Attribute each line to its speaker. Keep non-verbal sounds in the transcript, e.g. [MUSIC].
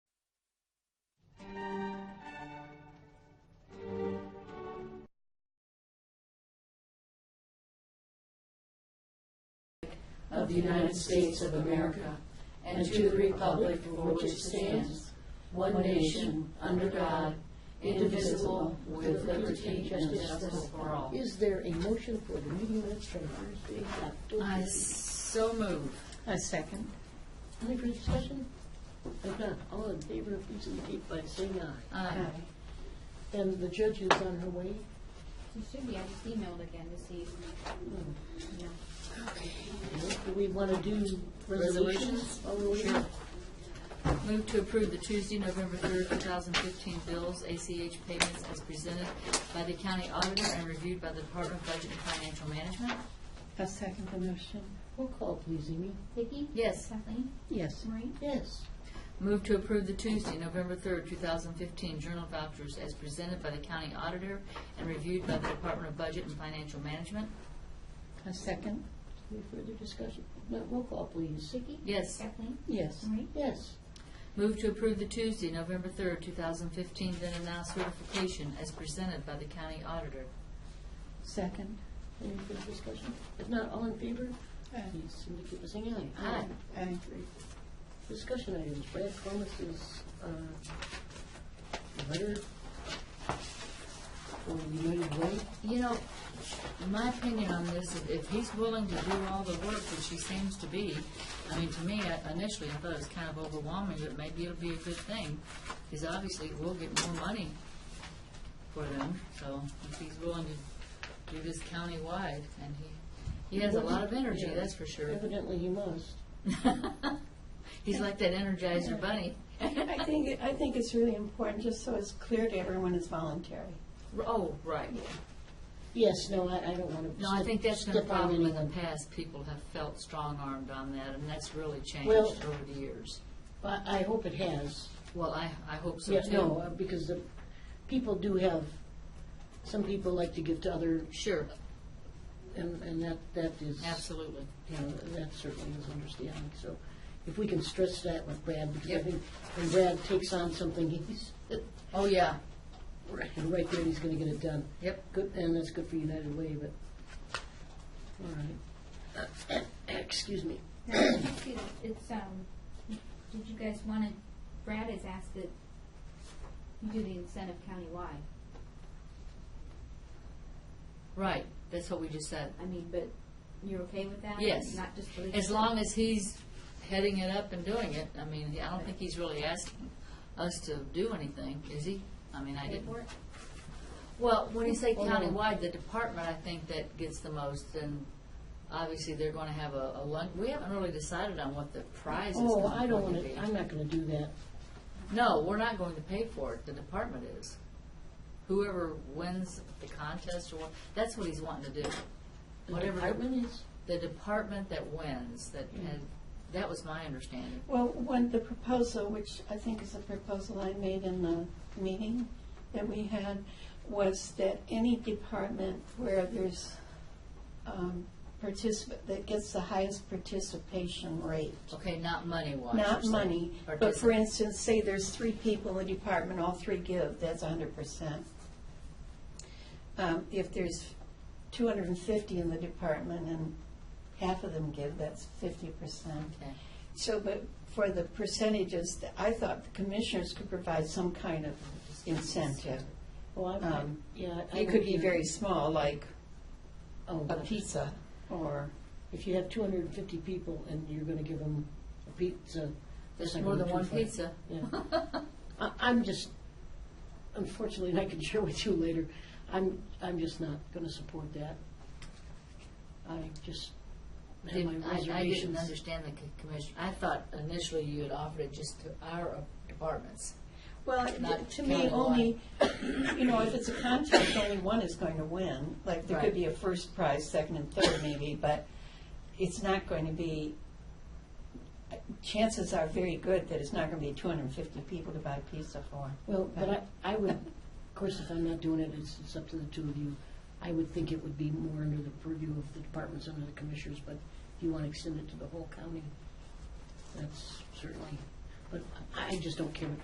Speaker 1: of the United States of America and to the republic for which it stands, one nation, under God, indivisible, with liberty and justice for all.
Speaker 2: Is there a motion for the meeting minutes from Thursday, October?
Speaker 3: I so move.
Speaker 4: A second.
Speaker 2: Any further discussion? If not, all in favor, please indicate by saying aye.
Speaker 3: Aye.
Speaker 2: And the judge is on her way?
Speaker 5: It should be, I just emailed again to see. Yeah.
Speaker 2: Do we want to do resolutions?
Speaker 3: Resolutions?
Speaker 2: while we're waiting?
Speaker 3: Sure. Move to approve the Tuesday, November 3rd, 2015 bills, ACH payments as presented by the county auditor and reviewed by the Department of Budget and Financial Management.
Speaker 4: A second the motion.
Speaker 2: Roll call, please, Amy.
Speaker 5: Vicki?
Speaker 3: Yes.
Speaker 5: Kathleen?
Speaker 4: Yes.
Speaker 5: Maureen?
Speaker 2: Yes.
Speaker 3: Move to approve the Tuesday, November 3rd, 2015 journal vouchers as presented by the county auditor and reviewed by the Department of Budget and Financial Management.
Speaker 4: A second.
Speaker 2: Any further discussion? No, Roll call, please.
Speaker 5: Vicki?
Speaker 3: Yes.
Speaker 5: Kathleen?
Speaker 4: Yes.
Speaker 5: Maureen?
Speaker 2: Yes.
Speaker 3: Move to approve the Tuesday, November 3rd, 2015 then and now certification as presented by the county auditor.
Speaker 4: Second.
Speaker 2: Any further discussion? If not, all in favor,
Speaker 4: Aye.
Speaker 2: please indicate by saying aye.
Speaker 3: Aye.
Speaker 4: Aye.
Speaker 2: Great. Discussion items, Brad Thomas's uh, letter for United Way.
Speaker 3: You know, my opinion on this, is if he's willing to do all the work, which he seems to be, I mean, to me, I- initially, I thought it was kind of overwhelming, but maybe it'll be a good thing, because obviously, we'll get more money for them, so if he's willing to do this countywide, and he, he has a lot of energy,
Speaker 2: Yeah.
Speaker 3: that's for sure.
Speaker 2: Evidently, he must.
Speaker 3: He's like that Energizer bunny.
Speaker 6: I think, I think it's really important, just so it's clear to everyone, it's voluntary.
Speaker 3: Oh, right.
Speaker 2: Yes, no, I, I don't want to.
Speaker 3: No, I think that's been a problem in the past. People have felt strong-armed on that, and that's really changed
Speaker 2: Well-
Speaker 3: over the years.
Speaker 2: I, I hope it has.
Speaker 3: Well, I, I hope so
Speaker 2: Yeah,
Speaker 3: too.
Speaker 2: no, uh, because the, people do have, some people like to give to other,
Speaker 3: Sure,
Speaker 2: and, and that, that is.
Speaker 3: absolutely.
Speaker 2: You know, that certainly is understanding, so if we can stress that with Brad, because I
Speaker 3: Yep.
Speaker 2: think when Brad takes on something, he's,
Speaker 3: Oh, yeah,
Speaker 2: right right there, he's gonna get it done.
Speaker 3: yep.
Speaker 2: Good, and that's good for United Way, but, all right. Excuse me.
Speaker 5: Now, it's- It's, um, did you guys want to, Brad has asked that you do the incentive countywide.
Speaker 3: Right, that's what we just said.
Speaker 5: I mean, but you're okay with that?
Speaker 3: Yes.
Speaker 5: Not just for the.
Speaker 3: As long as he's heading it up and doing it, I mean, I don't think he's really asking us to do anything, is he? I mean, I
Speaker 5: Pay
Speaker 3: didn't.
Speaker 5: for it?
Speaker 3: Well, when you say
Speaker 2: Oh, no.
Speaker 3: countywide, the department, I think that gets the most, and obviously, they're gonna have a, a lunch, we haven't really decided on what the prize is
Speaker 2: Oh,
Speaker 3: gonna
Speaker 2: I don't
Speaker 3: going to
Speaker 2: wanna,
Speaker 3: be.
Speaker 2: I'm not gonna do that.
Speaker 3: No, we're not going to pay for it, the department is. Whoever wins the contest or what, that's what he's wanting to do.
Speaker 2: The
Speaker 3: Whatever-
Speaker 2: department is,
Speaker 3: The department that wins, that,
Speaker 6: Hmm.
Speaker 3: had- that was my understanding.
Speaker 6: Well, one, the proposal, which I think is a proposal I made in the meeting that we had, was that any department where there's um, participant, that gets the highest participation rate,
Speaker 3: Okay, not money-wise.
Speaker 6: not
Speaker 3: you're saying,
Speaker 6: money,
Speaker 3: or
Speaker 6: but for
Speaker 3: dis-
Speaker 6: instance, say there's three people in the department, all three give, that's hundred percent. Um, if there's two hundred and fifty in the department and half of them give, that's fifty percent.
Speaker 3: Okay.
Speaker 6: So, but for the percentages, th- I thought the commissioners could provide some kind of incentive.
Speaker 2: well, Oh, I'm,
Speaker 6: Um,
Speaker 2: yeah. I
Speaker 6: It
Speaker 2: won't
Speaker 6: could be
Speaker 2: do
Speaker 6: very
Speaker 2: it.
Speaker 6: small, like
Speaker 2: Oh,
Speaker 6: a
Speaker 2: but
Speaker 6: pizza or,
Speaker 2: If you have two hundred and fifty people and you're gonna give them a pizza. that's
Speaker 3: There's
Speaker 2: not
Speaker 3: more
Speaker 2: gonna
Speaker 3: than
Speaker 2: be
Speaker 3: one
Speaker 2: too far.
Speaker 3: pizza.
Speaker 2: Yeah. [LAUGHS] I- I'm just, unfortunately, and I can share with you later, I'm, I'm just not going to support that. I just have my
Speaker 3: Didn't- I I didn't
Speaker 2: reservations.
Speaker 3: understand the co- commission. I thought initially you had offered it just to our uh, departments.
Speaker 6: well, it-
Speaker 3: Not
Speaker 6: to me,
Speaker 3: countywide.
Speaker 6: only, you know, if it's a contest, only one is going to win. Like, there
Speaker 3: Right.
Speaker 6: could be a first prize, second and third maybe, but it's not going to be, chances are very good that it's not going to be two hundred and fifty people to buy pizza for.
Speaker 2: Well, but I, I would, of course, if I'm not doing it, it's, it's up to the two of you. I would think it would be more under the purview of the departments under the commissioners, but if you want to extend it to the whole county, that's certainly, but I I just don't care